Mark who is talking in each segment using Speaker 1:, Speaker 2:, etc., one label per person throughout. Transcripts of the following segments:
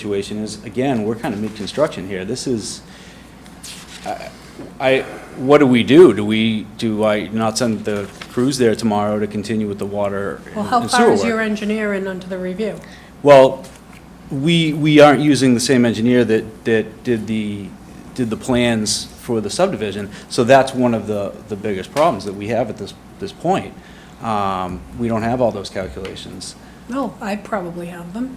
Speaker 1: situation is, again, we're kind of mid-construction here. This is, I- I, what do we do? Do we, do I not send the crews there tomorrow to continue with the water
Speaker 2: Well, how
Speaker 1: and
Speaker 2: far
Speaker 1: sewer
Speaker 2: is your
Speaker 1: work?
Speaker 2: engineer in onto the review?
Speaker 1: Well, we, we aren't using the same engineer that, that did the, did the plans for the subdivision. So that's one of the, the biggest problems that we have at this, this point.
Speaker 2: Hmm.
Speaker 1: Um, We don't have all those calculations.
Speaker 2: No, Oh, I probably have them.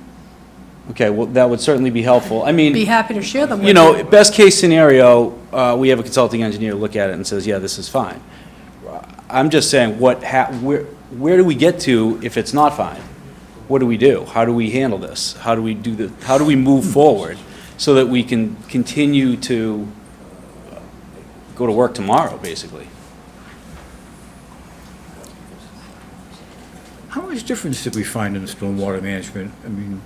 Speaker 1: Okay, well, that would certainly be helpful. I mean.
Speaker 2: Be happy to share them with you.
Speaker 1: you know, best case scenario, uh, we have a consulting engineer look at it and says, yeah, this is fine. I'm just saying, what hap, where, where do we get to if it's not fine? What do we do? How do we handle this? How do we do the, how do we move forward so that we can continue to go to work tomorrow, basically?
Speaker 3: How much difference did we find in the stormwater management? I mean,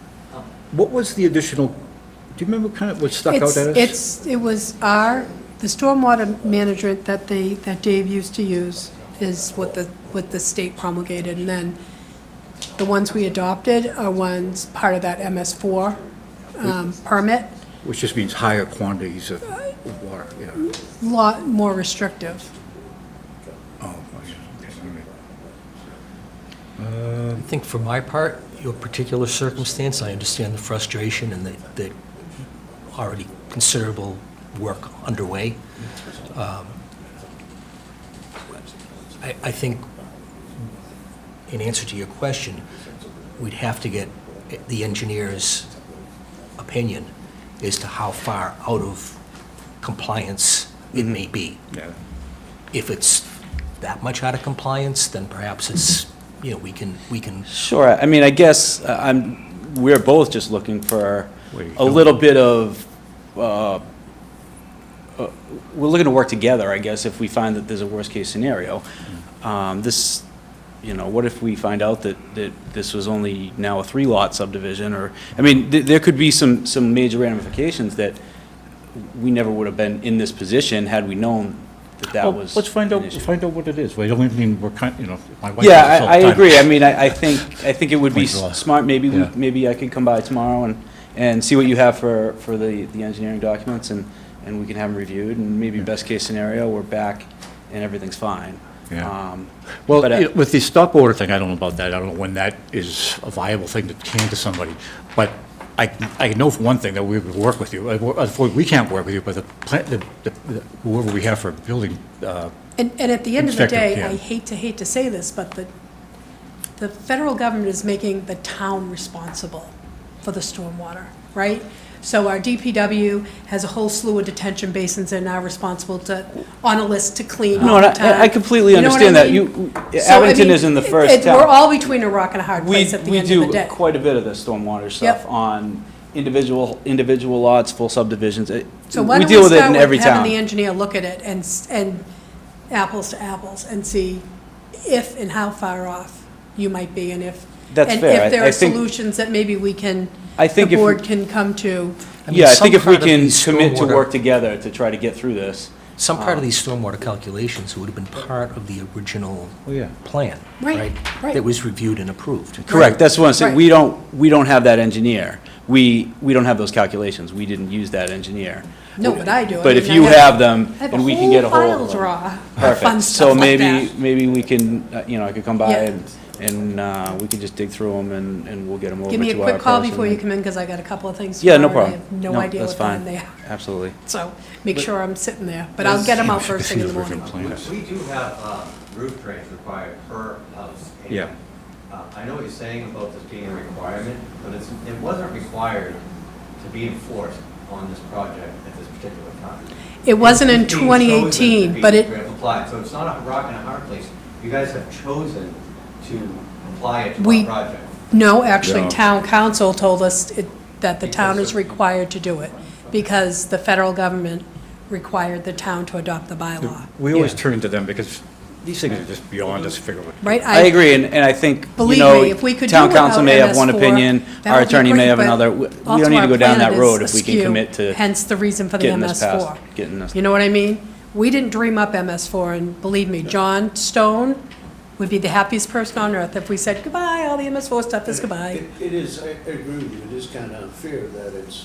Speaker 3: what was the additional, do you remember kind of what stuck out
Speaker 2: It's,
Speaker 3: at us?
Speaker 2: it's, it was our, the stormwater management that they, that Dave used to use is what the, what the state promulgated, and then the ones we adopted are ones part of that MS4 um, permit,
Speaker 3: Which just means higher quantities of of water, yeah.
Speaker 2: lot more restrictive.
Speaker 3: Oh, okay, all right.
Speaker 4: I think for my part, your particular circumstance, I understand the frustration and the, the already considerable work underway. Um, I, I think, in answer to your question, we'd have to get the engineer's opinion as to how far out of compliance it may be
Speaker 3: Yeah.
Speaker 4: if it's that much out of compliance, then perhaps it's, you know, we can, we can,
Speaker 1: Sure, I mean, I guess uh, I'm, we're both just looking for
Speaker 3: Where you're
Speaker 1: a
Speaker 3: going.
Speaker 1: little bit of, uh, uh, we're looking to work together, I guess, if we find that there's a worst-case scenario.
Speaker 3: Mm-hmm.
Speaker 1: Um, This, you know, what if we find out that, that this was only now a three-lot subdivision, or, I mean, th- there could be some, some major ramifications that we never would have been in this position had we known that that
Speaker 3: Well,
Speaker 1: was.
Speaker 3: Let's find
Speaker 1: an
Speaker 3: out,
Speaker 1: issue.
Speaker 3: find out what it is. Well, I don't mean we're kind, you know, my wife.
Speaker 1: Yeah,
Speaker 3: does this all
Speaker 1: I, I
Speaker 3: the time.
Speaker 1: agree. I mean, I, I think, I think it would be
Speaker 3: Point draw.
Speaker 1: s- smart, maybe, we-
Speaker 3: Yeah.
Speaker 1: maybe I could come by tomorrow and, and see what you have for, for the, the engineering documents, and, and we can have them reviewed, and maybe best-case scenario, we're back and everything's fine.
Speaker 3: Yeah.
Speaker 1: Um,
Speaker 3: Well,
Speaker 1: but I-
Speaker 3: you know, with the stop order thing, I don't know about that. I don't know when that is a viable thing to hand to somebody. But I, I know for one thing that we would work with you. Uh, we're- Unfortunately, we can't work with you, but the, plant- the- the- whoever we have for building, uh,
Speaker 2: And, and at the end of the
Speaker 3: Inspector,
Speaker 2: day,
Speaker 3: yeah.
Speaker 2: I hate to, hate to say this, but the, the federal government is making the town responsible for the stormwater, right? So our DPW has a whole slew of detention basins and are responsible to, on a list to clean
Speaker 1: No,
Speaker 2: all
Speaker 1: and
Speaker 2: the
Speaker 1: I-
Speaker 2: time.
Speaker 1: I completely
Speaker 2: You know what I
Speaker 1: understand that.
Speaker 2: mean?
Speaker 1: You-
Speaker 2: So, I
Speaker 1: Abington
Speaker 2: mean,
Speaker 1: is in the
Speaker 2: it-
Speaker 1: first
Speaker 2: it- We're
Speaker 1: town.
Speaker 2: all between a rock and a hard
Speaker 1: We,
Speaker 2: place at the
Speaker 1: we
Speaker 2: end of the
Speaker 1: do
Speaker 2: day.
Speaker 1: quite a bit of the stormwater stuff
Speaker 2: Yep.
Speaker 1: on individual, individual lots, full subdivisions. It-
Speaker 2: So why
Speaker 1: We
Speaker 2: don't
Speaker 1: deal
Speaker 2: we
Speaker 1: with it in
Speaker 2: start
Speaker 1: every
Speaker 2: with having the
Speaker 1: town.
Speaker 2: engineer look at it and, s- and apples to apples and see if and how far off you might be and if.
Speaker 1: That's fair.
Speaker 2: And
Speaker 1: I-
Speaker 2: if there
Speaker 1: I
Speaker 2: are
Speaker 1: think-
Speaker 2: solutions that maybe we can,
Speaker 1: I
Speaker 2: the
Speaker 1: think if we-
Speaker 2: board can come to.
Speaker 4: I mean,
Speaker 1: Yeah, I
Speaker 4: some
Speaker 1: think if we
Speaker 4: part of
Speaker 1: can
Speaker 4: the
Speaker 1: commit to
Speaker 4: stormwater-
Speaker 1: work together to try to get through this.
Speaker 4: some part of these stormwater calculations would have been part of the original
Speaker 3: Oh, yeah.
Speaker 4: plan.
Speaker 2: Right, right.
Speaker 4: That was reviewed and approved.
Speaker 1: Correct, that's what I'm saying,
Speaker 2: Right.
Speaker 1: we don't, we don't have that engineer. We, we don't have those calculations, we didn't use that engineer.
Speaker 2: No, but I do. I
Speaker 1: But if
Speaker 2: mean, I
Speaker 1: you
Speaker 2: have-
Speaker 1: have them,
Speaker 2: I have a
Speaker 1: and we can get a
Speaker 2: whole
Speaker 1: hold
Speaker 2: file
Speaker 1: of them.
Speaker 2: draw of fun
Speaker 1: Perfect, so
Speaker 2: stuff like
Speaker 1: maybe,
Speaker 2: that.
Speaker 1: maybe we can, uh, you know, I could come by
Speaker 2: Yeah.
Speaker 1: and, and uh, we can just dig through them and, and we'll get them over to
Speaker 2: Give
Speaker 1: our
Speaker 2: me a quick call
Speaker 1: person.
Speaker 2: before you come in because I got a couple of things.
Speaker 1: Yeah, no
Speaker 2: tomorrow,
Speaker 1: problem.
Speaker 2: and I have no idea
Speaker 1: that's
Speaker 2: what time
Speaker 1: fine.
Speaker 2: they are,
Speaker 1: Absolutely.
Speaker 2: so make sure I'm sitting there, but I'll get them out first thing in the morning.
Speaker 3: Plan.
Speaker 5: We we do have um, roof drains required per house. and,
Speaker 3: Yeah.
Speaker 5: uh, I know what you're saying about this being a requirement, but it's, it wasn't required to be enforced on this project at this particular time.
Speaker 2: It wasn't in
Speaker 5: It's being chosen to
Speaker 2: 2018,
Speaker 5: be
Speaker 2: but it,
Speaker 5: Applied, so it's not a rock and a hard place. You guys have chosen to apply it to
Speaker 2: We-
Speaker 5: our project.
Speaker 2: No, actually,
Speaker 3: Yeah.
Speaker 2: town council told us it- that the town is required to do it because the federal government required the town to adopt the bylaw,
Speaker 3: We always
Speaker 4: Yeah.
Speaker 3: turn to them because these things are just beyond us figuring.
Speaker 2: right?
Speaker 1: I agree, and, and I think, you
Speaker 2: Believe
Speaker 1: know,
Speaker 2: me, if we could do
Speaker 1: town council
Speaker 2: without
Speaker 1: may have one
Speaker 2: MS4,
Speaker 1: opinion,
Speaker 2: that
Speaker 1: our
Speaker 2: would be
Speaker 1: attorney may
Speaker 2: great,
Speaker 1: have
Speaker 2: but
Speaker 1: another, we we
Speaker 2: also
Speaker 1: don't need to
Speaker 2: our
Speaker 1: go down
Speaker 2: plan
Speaker 1: that
Speaker 2: is
Speaker 1: road if we can
Speaker 2: askew,
Speaker 1: commit to
Speaker 2: Hence the reason for the
Speaker 1: getting this passed,
Speaker 2: MS4.
Speaker 1: getting this
Speaker 2: You know what I mean? We didn't dream up MS4, and believe me, John Stone would be the happiest person on earth if we said, goodbye, all the MS4 stuff is goodbye.
Speaker 6: It it is, I I agree with you, it is kind of unfair that it's